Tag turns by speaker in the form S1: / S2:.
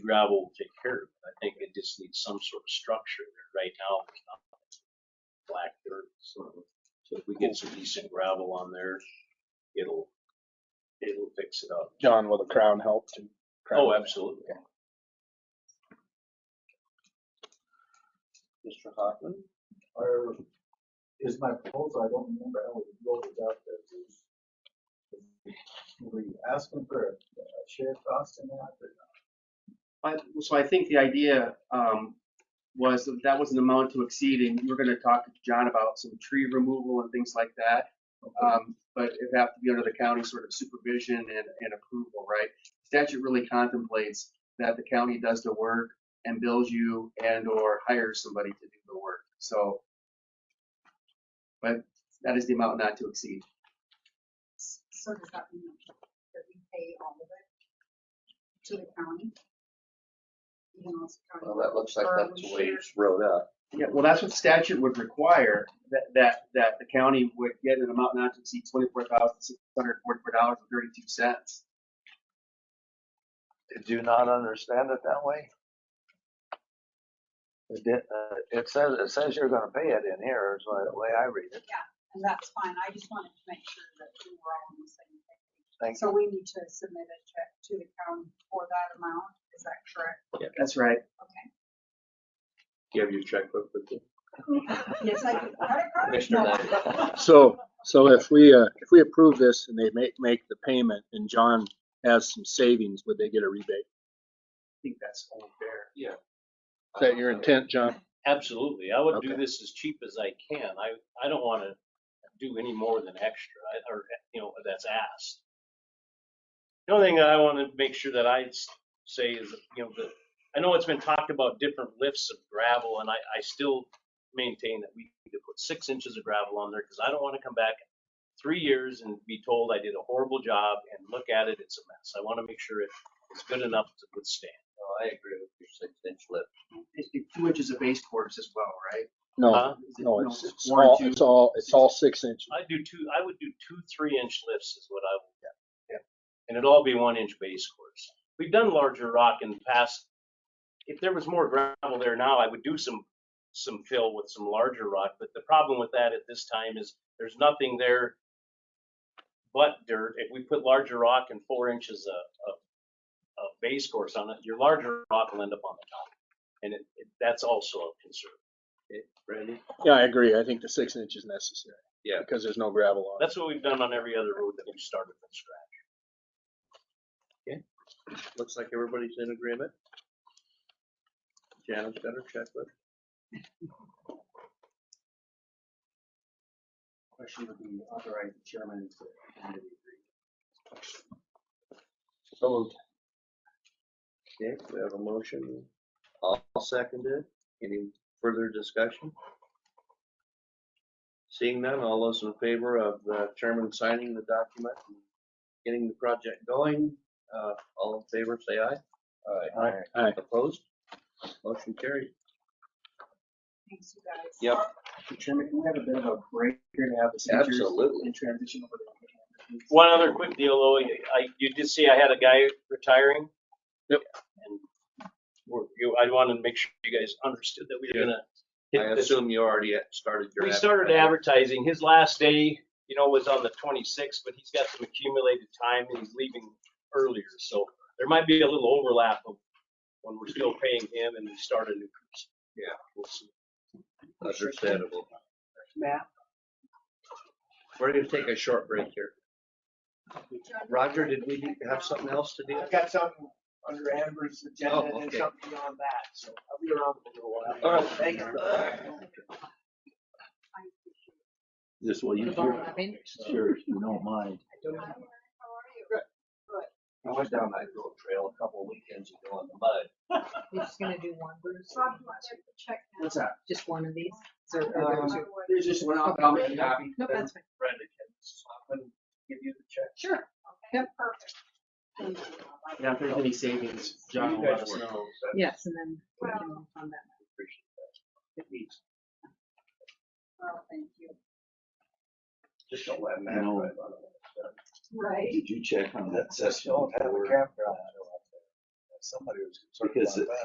S1: gravel will take care of it. I think it just needs some sort of structure there. Right now, there's not black dirt, so so if we get some decent gravel on there, it'll, it'll fix it up.
S2: John, will the crown help to?
S1: Oh, absolutely.
S2: Mr. Hoffman?
S3: or is my proposal, I don't remember how we voted out there. Is- Were you asking for a a share cost in that or not?
S4: I- So I think the idea um, was that that was an amount to exceed, and we're gonna talk to John about some tree removal and things like that. Um, But it would have to be under the county sort of supervision and, and approval, right? Statute really contemplates that the county does the work and bills you and/or hires somebody to do the work, so. But that is the amount not to exceed.
S5: So does that mean that we pay all of it to the county? Even though it's county?
S6: Well, that looks like
S5: Or
S6: that's
S5: we
S6: the way
S5: share-
S6: it's wrote up.
S4: Yeah, well, that's what statute would require, that, that, that the county would get an amount not to exceed twenty-four thousand six hundred forty-four dollars and thirty-two cents.
S6: Did you not understand it that way? It did, uh, it says, it says you're gonna pay it in here is the way I read it.
S5: And that's fine, I just wanted to make sure that we were all on the same page.
S6: Thank
S5: So we need to submit a check to the county for that amount, is that correct?
S4: That's right.
S1: Do you have your checkbook with you?
S5: Yes, I do. Credit card?
S6: Commissioner
S5: No.
S6: Knight.
S2: So, so if we, uh, if we approve this and they make, make the payment and John has some savings, would they get a rebate?
S4: I think that's only fair.
S2: Is that your intent, John?
S1: Absolutely. I would do
S2: Okay.
S1: this as cheap as I can. I, I don't want to do any more than extra I- or, you know, that's asked. The only thing that I want to make sure that I s- say is, you know, that, I know it's been talked about different lifts of gravel and I, I still maintain that we need to put six inches of gravel on there because I don't want to come back three years and be told I did a horrible job and look at it, it's a mess. I want to make sure it it's good enough to withstand.
S6: Oh, I agree with your six inch lip.
S4: It's it's two inches of base course as well, right?
S2: No,
S1: Huh?
S4: Is it-
S2: no, it's, it's
S4: one or
S2: all,
S4: two?
S2: it's all, it's all six inches.
S1: I do two, I would do two three inch lifts is what I would get. And it'd all be one inch base course. We've done larger rock in the past. If there was more gravel there now, I would do some, some fill with some larger rock, but the problem with that at this time is there's nothing there but dirt. If we put larger rock and four inches of, of, of base course on it, your larger rock will end up on the top. And it, it- that's also a concern.
S6: Randy?
S2: Yeah, I agree. I think the six inch is necessary.
S6: Yeah.
S2: Because there's no gravel on it.
S1: That's what we've done on every other road that we've started from scratch.
S6: Looks like everybody's in agreement. Janet's got her checklist.
S4: Question would be authorize the chairman to. agree.
S6: Okay, we have a motion. All seconded. Any further discussion? Seeing none, all those in favor of the chairman signing the document, and getting the project going, uh, all in favor, say aye. Aye.
S2: Aye.
S6: Opposed? Motion carried.
S5: Thanks, you guys.
S6: Yep.
S4: Mr. Chairman, can we have a bit of a break here to have the signatures?
S6: Absolutely.
S4: And transition over to.
S1: One other quick deal, though, I, you did see I had a guy retiring.
S2: Yep.
S1: And we're, you, I wanted to make sure you guys understood that we were gonna
S6: I
S1: hit this.
S6: assume you already started your.
S1: We started advertising, his last day, you know, was on the twenty-sixth, but he's got some accumulated time and he's leaving earlier, so there might be a little overlap of when we're still paying him and we start a new person.
S6: Yeah.
S1: We'll see.
S6: Understandable.
S4: Matt?
S6: We're gonna take a short break here. Roger, did we have something else to do?
S7: I've got something under Amber's agenda
S6: Oh,
S7: and
S6: okay.
S7: something beyond that, so I'll be around for a little while.
S6: All right.
S7: Thank you.
S8: Just well, you, sure, sure, if you don't mind.
S5: Hi, Lauren, How are you?
S6: I went down that little trail a couple of weekends ago in the mud.
S9: We're just gonna do one, Bruce?
S5: Rob, you want to check- check now?
S4: What's that?
S9: Just one of these? Is there-
S4: Uh,
S9: or there's-
S4: There's just one, I'll- I'll make a copy.
S9: Nope, that's fine.
S4: Brenda can swap and give you the check.
S9: Sure.
S5: Okay, perfect. Thank you. Rob. I
S4: Yeah, if there's any savings, John will let us know.
S9: Yes, and then we can move on that.
S5: Oh, thank you.
S6: Just don't let
S8: Matt No. drive
S5: Right.
S8: Did you check on that
S3: Just
S8: session?
S3: don't have a
S8: before?
S3: campground.
S6: somebody was concerned
S10: Because
S6: about that.